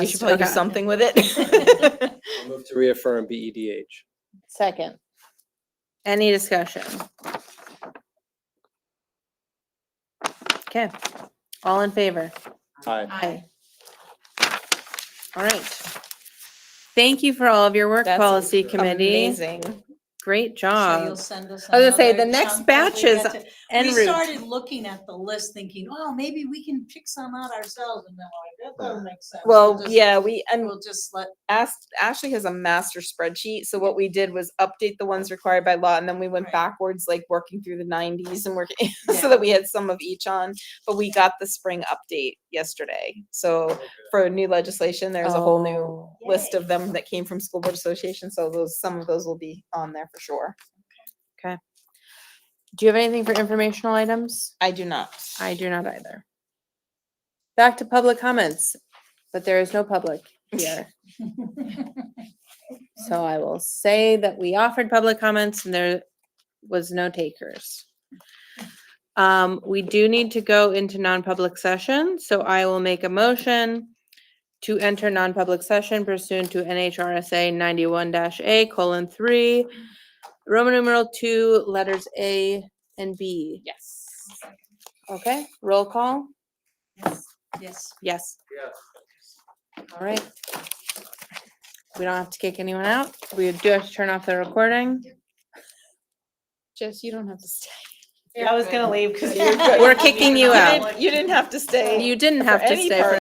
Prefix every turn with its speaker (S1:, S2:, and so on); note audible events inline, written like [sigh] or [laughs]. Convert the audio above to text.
S1: We should probably do
S2: Okay.
S1: something with
S3: [laughs]
S1: it.
S4: I'll move to reaffirm E BEDH.
S5: Second.
S2: Any discussion? Okay, all in favor?
S4: Aye.
S2: Aye. All right. Thank you for all of your work,
S1: That's
S2: policy committee.
S1: Amazing.
S2: Great
S3: So
S2: job.
S3: you'll send us
S2: Uh, I was gonna say,
S3: another
S2: the next
S3: chunk as
S2: batch
S3: we
S2: is
S3: get to-
S2: En
S3: We
S2: route.
S3: started looking at the list thinking, oh, maybe we can pick some out ourselves and then like, that doesn't make sense. We'll
S1: Well,
S3: just-
S1: yeah, we, and
S3: We'll just let,
S1: asked, Ashley has a master spreadsheet. So what we did was update the ones required by law and then we went
S3: Right.
S1: backwards, like working through the nineties and working,
S3: Yeah.
S1: [laughs] so that we had some of each on. But we got the spring update yesterday.
S3: Oh,
S1: So for new legislation, there's a whole new list of them that came from school board association. So those, some of those will be on there for sure.
S2: Do you have anything for informational items?
S1: I do not.
S2: I do not either. Back to public comments, but there is no public here. So I will say that we offered public comments and there was no takers. Um, we do need to go into non-public session, so I will make a motion to enter non-public session pursuant to NHRSA ninety-one A colon three, Roman numeral two, letters A and B.
S1: Yes.
S2: Okay, roll call?
S3: yes, yes.
S2: Yes.
S4: Yes.
S2: All right. We don't have to kick anyone out. We do have to turn off the recording. Jess, you don't have to stay.
S1: I was gonna leave because [laughs]
S3: you
S2: [laughs]
S3: were- [laughs]
S2: We're kicking you out.
S1: You didn't have to stay.
S2: You didn't have to
S1: any
S2: stay for